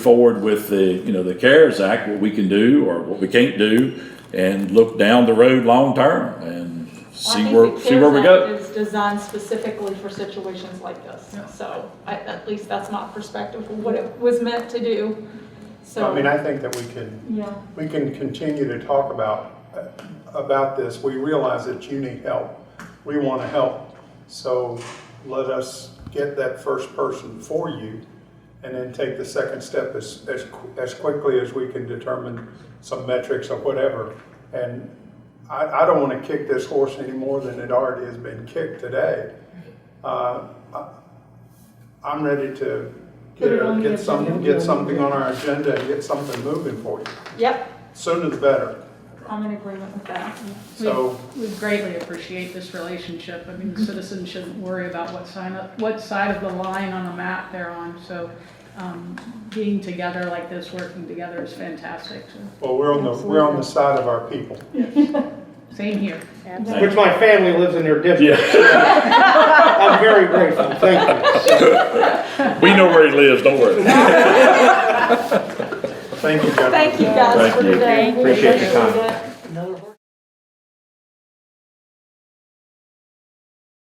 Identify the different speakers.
Speaker 1: forward with the, you know, the CARES Act, what we can do or what we can't do, and look down the road long-term and
Speaker 2: Well, I
Speaker 1: see
Speaker 2: think
Speaker 1: where,
Speaker 2: the
Speaker 1: see where we
Speaker 2: CARES Act
Speaker 1: go.
Speaker 2: is designed specifically for situations like this, so I- at least that's my perspective of what it was meant to do, so.
Speaker 3: I mean, I think that we can,
Speaker 2: Yeah,
Speaker 3: we can continue to talk about, uh, about this. We realize that you need help. We want to help. So let us get that first person for you and then take the second step as, as, qu- as quickly as we can determine some metrics or whatever. And I, I don't want to kick this horse any more than it already has been kicked today. Uh, I- I'm ready to get,
Speaker 2: Put it on the
Speaker 3: get some,
Speaker 2: agenda.
Speaker 3: get something on our agenda and get something moving for you.
Speaker 2: yep,
Speaker 3: Sooner the better.
Speaker 2: I'm in agreement with that.
Speaker 4: We-
Speaker 3: So-
Speaker 4: We greatly appreciate this relationship. I mean, citizens shouldn't worry about what sign up, what side of the line on the map they're on. So um, being together like this, working together is fantastic. So,
Speaker 3: Well, we're on the, we're on the side of our people.
Speaker 4: Same here.
Speaker 5: Which my family lives in their district.
Speaker 1: Yeah,
Speaker 5: I'm very grateful, thank you.
Speaker 1: we know where he lives, don't worry.
Speaker 3: Thank you, gentlemen.
Speaker 2: Thank you guys
Speaker 1: Thank
Speaker 2: for
Speaker 1: you.
Speaker 2: today.
Speaker 5: Appreciate your time.
Speaker 2: it.